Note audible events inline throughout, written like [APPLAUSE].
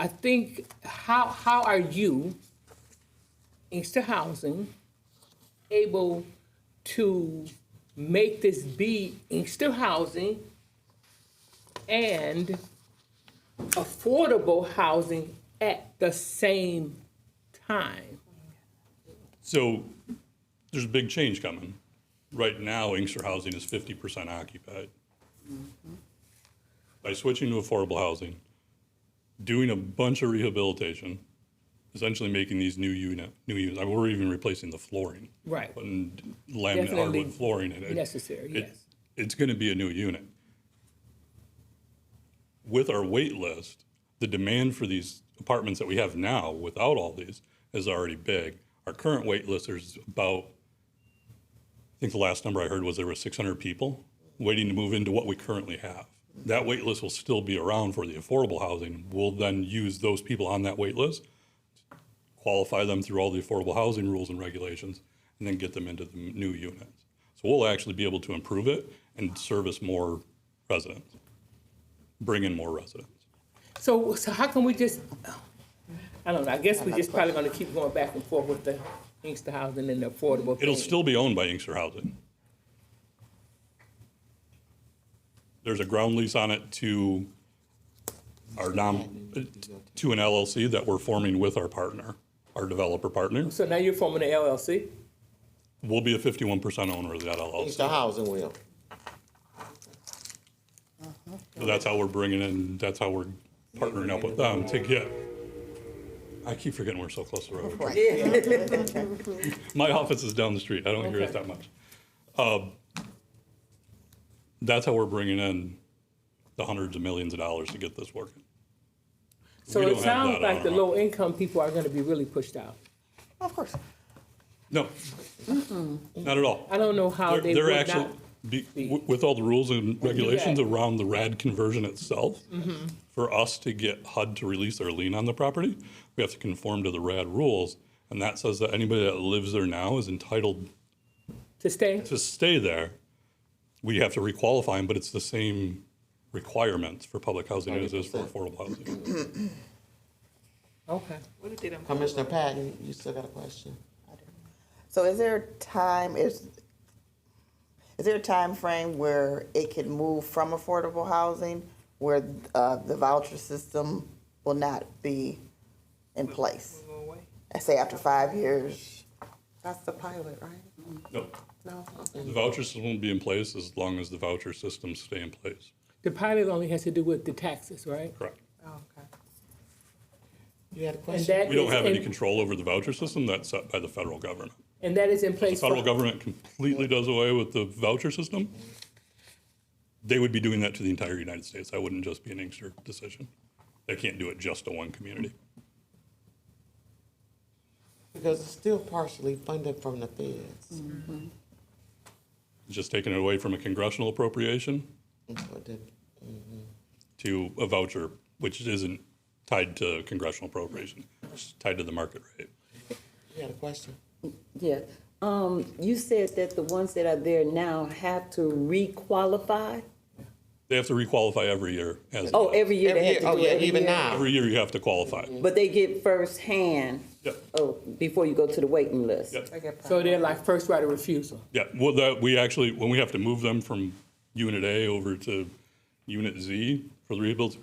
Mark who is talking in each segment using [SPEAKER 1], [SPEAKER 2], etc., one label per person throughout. [SPEAKER 1] I think, how, how are you, Inkster Housing, able to make this be Inkster Housing and affordable housing at the same time?
[SPEAKER 2] So there's a big change coming. Right now, Inkster Housing is 50% occupied.
[SPEAKER 1] Mm-hmm.
[SPEAKER 2] By switching to affordable housing, doing a bunch of rehabilitation, essentially making these new unit, new units, I mean, we're even replacing the flooring.
[SPEAKER 1] Right.
[SPEAKER 2] Putting laminate
[SPEAKER 1] Definitely
[SPEAKER 2] hardwood flooring in it.
[SPEAKER 1] necessary,
[SPEAKER 2] It-
[SPEAKER 1] yes.
[SPEAKER 2] It's going to be a new unit. With our wait list, the demand for these apartments that we have now without all these is already big. Our current wait list is about, I think the last number I heard was there were 600 people waiting to move into what we currently have. That wait list will still be around for the affordable housing. We'll then use those people on that wait list, qualify them through all the affordable housing rules and regulations, and then get them into the new units. So we'll actually be able to improve it and service more residents, bring in more residents.
[SPEAKER 1] So, so how can we just, I don't know, I guess we're just probably gonna keep going back and forth with the Inkster housing and the affordable
[SPEAKER 2] It'll
[SPEAKER 1] thing.
[SPEAKER 2] still be owned by Inkster Housing. There's a ground lease on it to our non, to an LLC that we're forming with our partner, our developer partner.
[SPEAKER 1] So now you're forming an LLC?
[SPEAKER 2] We'll be a 51% owner of that
[SPEAKER 3] It's
[SPEAKER 2] LLC.
[SPEAKER 3] the housing will.
[SPEAKER 2] So That's how we're bringing in, that's how we're partnering up with them to get, I keep forgetting we're so close to the road. [LAUGHS] My office is down the street. I don't hear
[SPEAKER 1] Okay.
[SPEAKER 2] it that much. Um, that's how we're bringing in the hundreds of millions of dollars to get this working.
[SPEAKER 1] So
[SPEAKER 2] We
[SPEAKER 1] it
[SPEAKER 2] don't have
[SPEAKER 1] sounds
[SPEAKER 2] that
[SPEAKER 1] like
[SPEAKER 2] on
[SPEAKER 1] the
[SPEAKER 2] our-
[SPEAKER 1] low income people are gonna be really pushed out.
[SPEAKER 4] Of course.
[SPEAKER 2] No, not at all.
[SPEAKER 1] I don't know how
[SPEAKER 2] They're,
[SPEAKER 1] they
[SPEAKER 2] they're
[SPEAKER 1] would
[SPEAKER 2] actually,
[SPEAKER 1] not.
[SPEAKER 2] be, w- with all the rules and regulations around the RAD conversion itself,
[SPEAKER 1] Mm-hmm.
[SPEAKER 2] for us to get HUD to release their lien on the property, we have to conform to the RAD rules. And that says that anybody that lives there now is entitled
[SPEAKER 1] To stay?
[SPEAKER 2] to stay there, we have to requalify them, but it's the same requirements for public housing as it is for affordable housing.
[SPEAKER 1] Okay.
[SPEAKER 5] What if they don't?
[SPEAKER 3] Commissioner Patton, you still got a question?
[SPEAKER 4] So is there a time, is, is there a time frame where it can move from affordable housing where uh, the voucher system will not be in place?
[SPEAKER 5] go away?
[SPEAKER 4] I say after five years,
[SPEAKER 6] That's the pilot, right?
[SPEAKER 2] No,
[SPEAKER 6] No, okay.
[SPEAKER 2] the voucher system will be in place as long as the voucher systems stay in place.
[SPEAKER 1] The pilot only has to do with the taxes, right?
[SPEAKER 2] Correct.
[SPEAKER 6] Oh, okay.
[SPEAKER 3] You had a
[SPEAKER 1] And
[SPEAKER 3] question?
[SPEAKER 1] that
[SPEAKER 2] We don't
[SPEAKER 1] is
[SPEAKER 2] have
[SPEAKER 1] in-
[SPEAKER 2] any control over the voucher system. That's set by the federal government.
[SPEAKER 1] And that is in
[SPEAKER 2] The
[SPEAKER 1] place
[SPEAKER 2] federal
[SPEAKER 1] for,
[SPEAKER 2] government completely does away with the voucher system. They would be doing that to the entire United States. That wouldn't just be an Inkster decision. They can't do it just to one community.
[SPEAKER 3] Because it's still partially funded from the feds.
[SPEAKER 2] Just taking it away from a congressional appropriation
[SPEAKER 3] But the-
[SPEAKER 2] to a voucher, which isn't tied to congressional appropriation, it's tied to the market rate.
[SPEAKER 3] You had a question?
[SPEAKER 7] Yeah, um, you said that the ones that are there now have to requalify?
[SPEAKER 2] They have to requalify every year. As
[SPEAKER 7] Oh, every year
[SPEAKER 3] Every
[SPEAKER 7] they have
[SPEAKER 3] year,
[SPEAKER 7] to do
[SPEAKER 3] oh
[SPEAKER 7] it
[SPEAKER 3] yeah,
[SPEAKER 7] every
[SPEAKER 3] even
[SPEAKER 7] year?
[SPEAKER 3] now.
[SPEAKER 2] Every year you have to qualify.
[SPEAKER 7] But they get firsthand,
[SPEAKER 2] Yeah.
[SPEAKER 7] oh, before you go to the waiting list?
[SPEAKER 2] Yeah.
[SPEAKER 6] They get
[SPEAKER 1] so they're like first right of refusal.
[SPEAKER 2] Yeah, well, that, we actually, when we have to move them from Unit A over to Unit Z for the rebuilds,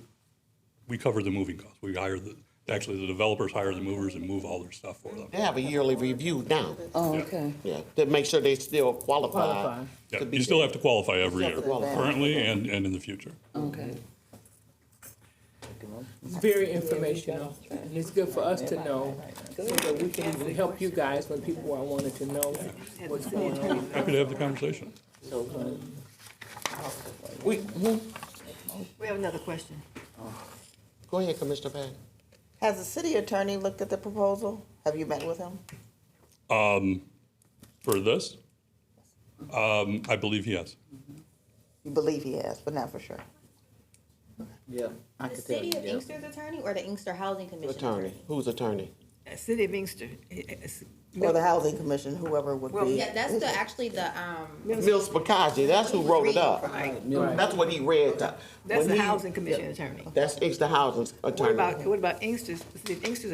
[SPEAKER 2] we cover the moving costs. We hire the, actually, the developers hire the movers and move all their stuff for them.
[SPEAKER 3] They have a yearly review now,
[SPEAKER 7] Oh, okay.
[SPEAKER 3] yeah, to make sure they still qualify.
[SPEAKER 1] Qualify.
[SPEAKER 2] Yeah,
[SPEAKER 3] to be
[SPEAKER 2] You still
[SPEAKER 3] there.
[SPEAKER 2] have to qualify every
[SPEAKER 4] You have
[SPEAKER 2] year,
[SPEAKER 4] to qualify.
[SPEAKER 2] currently and, and in the future.
[SPEAKER 7] Okay.
[SPEAKER 1] It's very informational, and it's good for us to know, so that we can help you guys when people are wanting to know what's going on.
[SPEAKER 2] Happy to have the conversation.
[SPEAKER 3] We, we-
[SPEAKER 5] We have another question.
[SPEAKER 3] go ahead, Commissioner Patton.
[SPEAKER 4] has the city attorney looked at the proposal? Have you met with him?
[SPEAKER 2] For this, um, I believe yes.
[SPEAKER 4] You believe he has, but not for sure.
[SPEAKER 8] The city of Inkster's attorney or the Inkster Housing Commission
[SPEAKER 3] Attorney, who's attorney?
[SPEAKER 5] Uh, City of Inkster. it's-
[SPEAKER 4] Or the housing commission, whoever would
[SPEAKER 5] Well,
[SPEAKER 4] be.
[SPEAKER 8] Yeah, that's the, actually the, um,
[SPEAKER 3] Mills Bakaji, that's who wrote it up. That's what he read. to-
[SPEAKER 5] That's
[SPEAKER 3] when
[SPEAKER 5] the
[SPEAKER 3] he-
[SPEAKER 5] housing commission attorney.
[SPEAKER 3] That's, it's the housing attorney.
[SPEAKER 5] What about, what about Inkster's, the City of Inkster's